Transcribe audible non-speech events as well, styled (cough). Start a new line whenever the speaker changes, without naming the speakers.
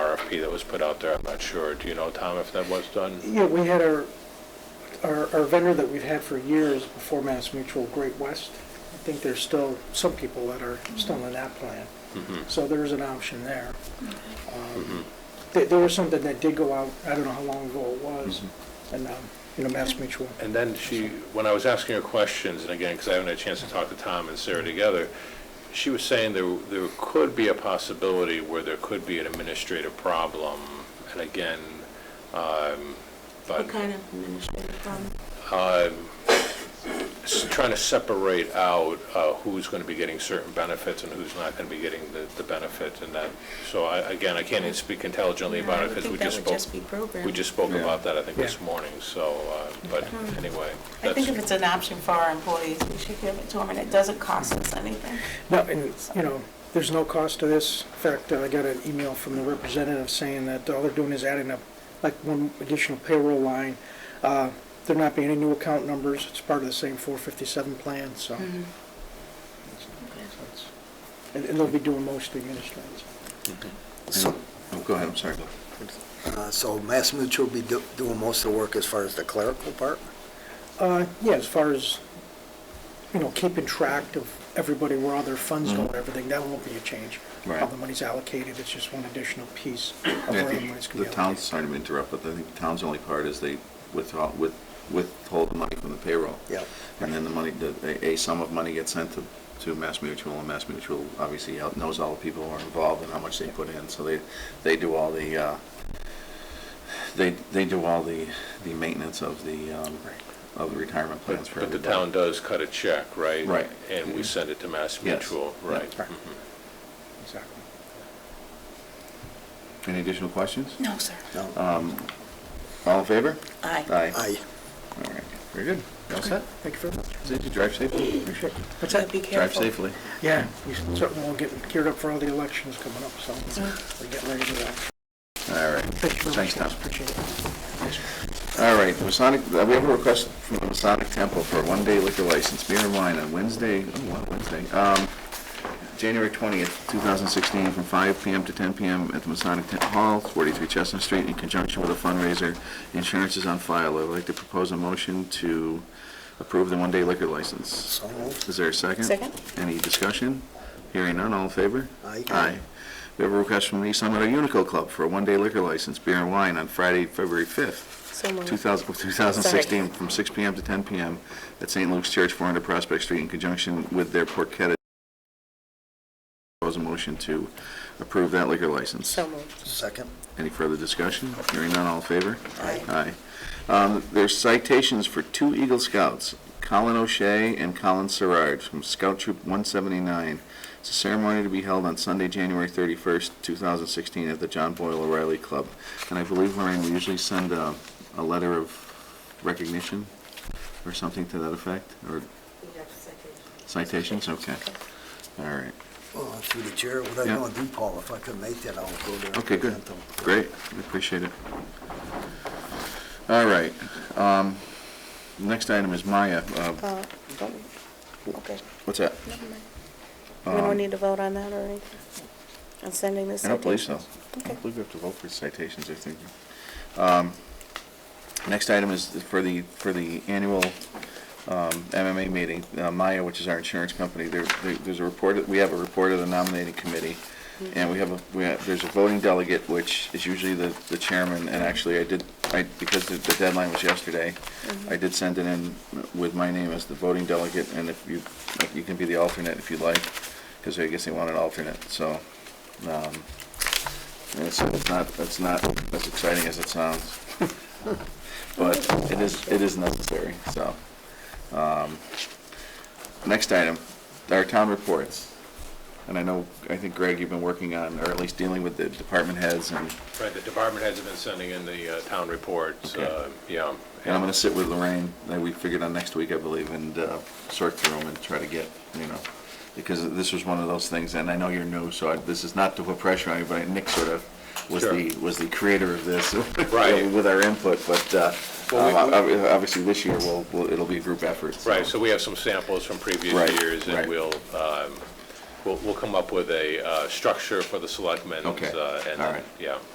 RFP that was put out there, I'm not sure. Do you know, Tom, if that was done?
Yeah, we had our, our our vendor that we've had for years before Mass Mutual, Great West. I think there's still some people that are still in that plan. So there's an option there. Um, There, there was something that did go out, I don't know how long ago it was, and, um, you know, Mass Mutual.
And then she, when I was asking her questions, and again, because I haven't had a chance to talk to Tom and Sarah together, she was saying there, there could be a possibility where there could be an administrative problem, and again, um, but
What kind of administrative problem?
s- trying to separate out uh, who's going to be getting certain benefits and who's not going to be getting the, the benefits and that. So I, again, I can't even speak intelligently
Yeah,
about
I
it
would
because we
think that
just
would
spoke.
just be programmed.
We just spoke
Yeah.
about that, I think, this
Yeah.
morning, so, uh, but anyway.
Um, I think
that's-
if it's an option for our employees, we should give it to them, and it doesn't cost us anything.
No, and, you know, there's no cost to this. In fact, I got an email from the representative saying that all they're doing is adding up, like, one additional payroll line. Uh, There not being any new account numbers, it's part of the same 457 plan, so. And and they'll be doing most of the administrative.
So,
Oh, Go ahead, I'm sorry.
uh, so Mass Mutual will be do- doing most of the work as far as the clerical part?
Uh, Yeah, as far as, you know, keeping track of everybody, where all their funds go and everything, that won't be a change. How
Mm-hmm. Right.
the money's allocated, it's just one additional piece of
Yeah,
where
I
the money's
think
going
the
to be
town's,
allocated.
sorry to interrupt, but I think the town's only part is they withhold, with- withhold the money from the payroll.
Yep.
And then the money, the- a a sum of money gets sent to, to Mass Mutual, and Mass Mutual obviously out- knows all the people who are involved and how much they put in, so they, they do all the, uh, they, they do all the, the maintenance of the, um, of the retirement plans
But
for
but the town
everybody.
does cut a check, right?
Right. Mm-hmm.
And we send it to Mass
Yes.
Mutual,
Yeah.
right?
Right.
Mhm.
Exactly.
Any additional questions?
No, sir.
No?
Uh, All in favor?
Aye.
Uh,
Aye.
All right, very good. You All set?
Thank you very much.
Did you drive safely? Appreciate it.
What's that? Be
Drive
careful.
safely.
Yeah, we certainly will get geared up for all the elections coming up, so we're getting ready to do that.
All right.
Thank you very much.
Thanks, Tom.
guys. Appreciate it.
All right, Masonic, uh, we have a request from the Masonic Temple for a one-day liquor license, beer and wine on Wednesday, oh, what, Wednesday, um, January twentieth, two thousand sixteen, from five PM to ten PM at the Masonic Temple Hall, forty-three Chestnut Street, in conjunction with a fundraiser. Insurance is on file. I'd like to propose a motion to approve the one-day liquor license.
So moved.
Is there a second?
Second.
Any discussion? Hearing none, all in favor?
Aye.
Aye. We have a request from the East Long Meadow Unico Club for a one-day liquor license, beer and wine, on Friday, February fifth, 2000 2016, from 6 PM to 10 PM at St. Luke's Church, 400 Prospect Street, in conjunction with their Porchetta. Propose a motion to approve that liquor license.
moved.
Second?
Any further discussion? Hearing none, all in favor?
Aye.
Aye. Um, There's citations for two Eagle Scouts, Colin O'Shea and Colin Serrard, from Scout Troop 179. It's a ceremony to be held on Sunday, January 31st, 2016, at the John Boyle O'Reilly Club. And I believe, Lorraine, we usually send a, a letter of recognition or something to that effect, or citations, okay. All right,
Well, Oh, through the chair, what
Yeah.
I gonna do, Paul, if I could make that, I'll go there. and
okay, good,
present them.
great, We appreciate it. All right, um, next item is Maya, uh,
Uh, don't- Okay,
What's that?
never mind. We don't need to vote on that or anything? On sending this
Um, I don't believe so.
citation?
I
Okay.
don't believe we have to vote for citations, I think. Um, Next item is for the, for the annual um, MMA meeting, uh, Maya, which is our insurance company, there, there- there's a report, we have a report of the nominating committee, and we have, a we have, there's a voting delegate, which is usually the, the chairman, and actually, I did, I, because the the deadline was yesterday, I did send it in with my name as the voting delegate, and if you, you can be the alternate if you'd like, because I guess they want an alternate, so, um, and so it's not, it's not as exciting as it sounds. But it is, it is necessary, so. um, Next item, our town reports. And I know, I think Greg, you've been working on, or at least dealing with the department heads and,
Right, the department heads have been sending in the uh, town reports,
Okay.
uh, yeah.
and I'm gonna sit with Lorraine, that we figured on next week, I believe, and uh, sort through them and try to get, you know, because this was one of those things, and I know you're new, so I- this is not to put pressure on you, but Nick sort of was
Sure.
the, was the creator of this. (laughs)
Right.
With our input, but uh,
Well, we-
um, ob- obviously this year, we'll, we'll- it'll be a group effort. so-
Right, so we have some samples from previous
Right,
years,
right.
and we'll, um, we'll, we'll come up with a uh, structure for the selectmen.
Okay,
uh, and
all
then-
right.
Yeah,